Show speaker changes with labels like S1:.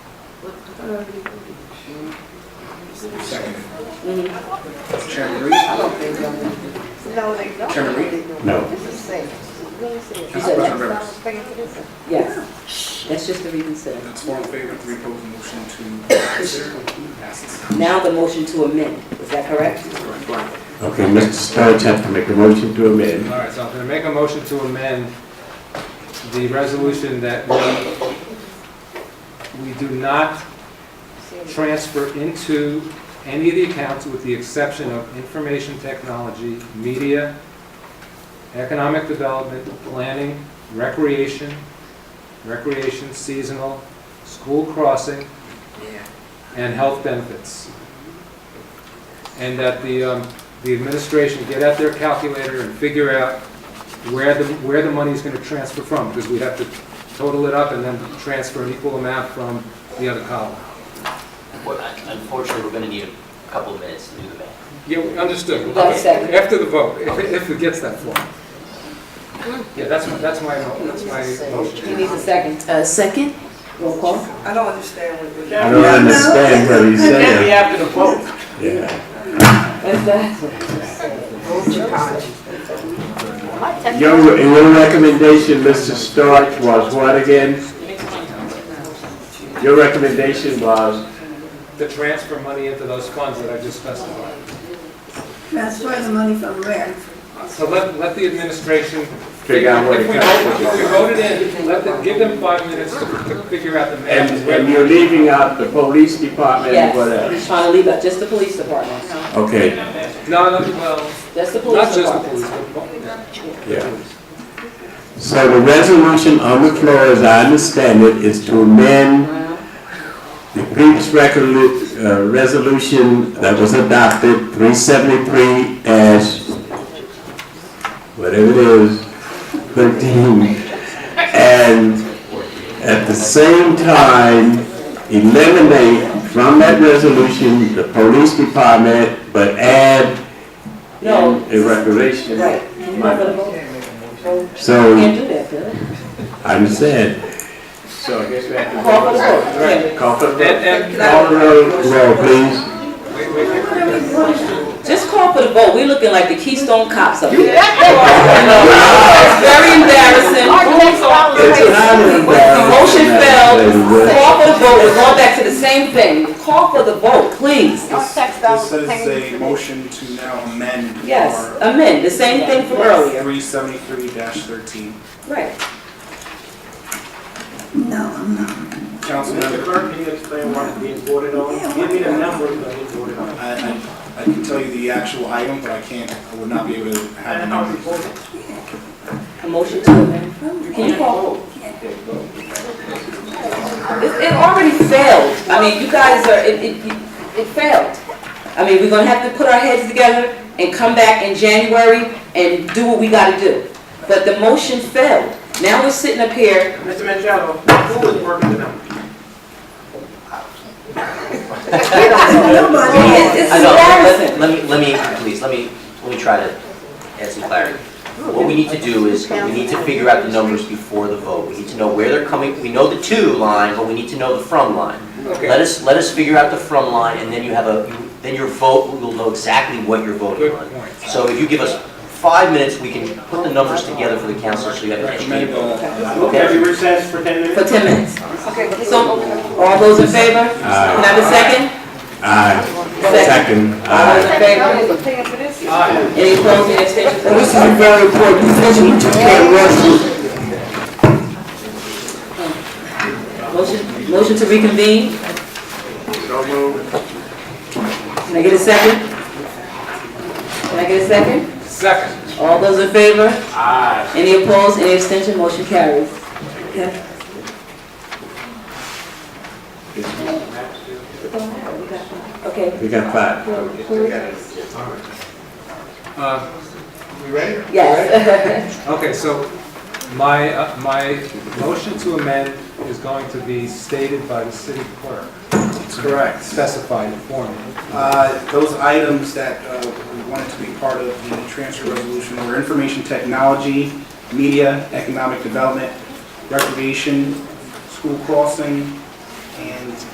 S1: Second.
S2: Mhm.
S1: Chairman Reed?
S3: I don't think they'll,
S4: No, they don't.
S1: Chairman Reed?
S5: No.
S4: This is safe. Really safe.
S2: He said
S1: Councilperson
S2: no.
S1: Rivers?
S2: Yes, that's just to reconsider.
S1: That's four in favor, three opposed, motion to consider passes.
S2: Now the motion to amend, is that correct?
S5: Okay, Mr. Sterns has to make a motion to
S6: All
S5: amend.
S6: right, so I'm going to make a motion to amend the resolution that we, we do not transfer into any of the accounts with the exception of information technology, media, economic development, planning, recreation, recreation, seasonal, school crossing,
S1: Yeah.
S6: and health benefits. And that the, um, the administration get out their calculator and figure out where the, where the money is gonna transfer from, because we'd have to total it up and then transfer an equal amount from the other column.
S7: Well, Unfortunately, we're going to need a couple of minutes to do the math.
S6: Yeah, we understood.
S2: One second.
S6: After the vote, if, if it gets that far. Yeah, that's, that's my, mo- that's my
S2: He
S6: motion.
S2: needs a second.
S8: Uh, second?
S2: Roll call.
S3: I don't understand what you're.
S5: I don't understand what he's saying.
S7: after the vote.
S5: Yeah. Your, your recommendation, Mr. Starch, was what again? Your recommendation was,
S6: To transfer money into those funds that I just specified.
S8: Transfer the money from where?
S6: So let, let the administration.
S5: Figure out what it
S6: If we
S5: costs.
S6: vote, if we vote it in, let them, give them five minutes to to figure out the
S5: and,
S6: math.
S5: and you're leaving out the police department and what
S2: Yes,
S5: else?
S2: he's trying to leave out just the police department.
S5: Okay,
S6: No, no, well,
S2: That's the
S6: not
S2: police
S6: just the
S2: department.
S6: police, but.
S5: yeah. So the resolution on the floor, as I understand it, is to amend the previous recolu- uh, resolution that was adopted, 373 as, whatever it is, 13. And at the same time, eliminate from that resolution the police department, but add
S2: No.
S5: a recreation.
S2: Right. You're not gonna vote?
S5: So.
S2: Can't do that, Bill.
S5: I understand. So I guess we have to.
S2: Call for the vote. Okay.
S5: Call for the vote.
S6: And, and,
S5: Call the roll, roll, please.
S6: wait, wait, wait.
S2: Just call for the vote. We're looking like the Keystone Cops up here. It's Very embarrassing.
S5: It's not an
S2: The motion
S5: embarrassment,
S2: failed.
S5: Lady Wood.
S2: Call for the vote. We're going back to the same thing. Call for the vote, please.
S4: This
S1: This is a motion to now amend.
S2: Yes, amend, the same thing from earlier.
S1: Three seventy-three thirteen.
S2: Right.
S8: No, I'm not.
S1: Councilmember Clark, can you explain what being voted on? Give me the number that being voted on. I, I, I can tell you the actual item, but I can't, I would not be able to have the number.
S2: A motion to amend. Can you call? It, it already failed. I mean, you guys are, it, it, it failed. I mean, we're gonna have to put our heads together and come back in January and do what we gotta do. But the motion failed. Now we're sitting up here.
S3: Mr. Manchado, who is working the number?
S2: It's it's
S7: I know, let- let-
S2: embarrassing.
S7: let me, let me, please, let me, let me try to add some clarity. What we need to do is, we need to figure out the numbers before the vote. We need to know where they're coming, we know the to line, but we need to know the from line. Let
S6: Okay,
S7: us, let us figure out the from line, and then you have a, you- then your vote, we will know exactly what you're voting
S6: good
S7: on.
S6: point.
S7: So if you give us five minutes, we can put the numbers together for the council, so you have an educated
S1: Recommend,
S7: vote.
S1: uh,
S7: Okay?
S9: recess for 10
S2: For
S9: minutes?
S2: ten minutes.
S4: Okay, but
S2: So, all those in favor? Can I have a second?
S5: Aye,
S2: Second.
S5: second,
S2: All
S5: aye.
S2: those in favor?
S4: Paying for this?
S6: Aye.
S2: Any opposed, any abstentions?
S8: This is a very important decision to take, Russell.
S2: Motion, motion to reconvene? Can I get a second? Can I get a second?
S6: Second.
S2: All those in favor? Aye. Any opposed, any abstention, motion carries. Okay. Okay,
S5: We got five.
S6: Uh, We ready?
S2: yes.
S6: Okay, so my, uh, my motion to amend is going to be stated by the city clerk,
S1: Correct.
S6: specified in form.
S1: Uh, Those items that uh, we wanted to be part of the transfer resolution were information technology, media, economic development, recreation, school crossing, and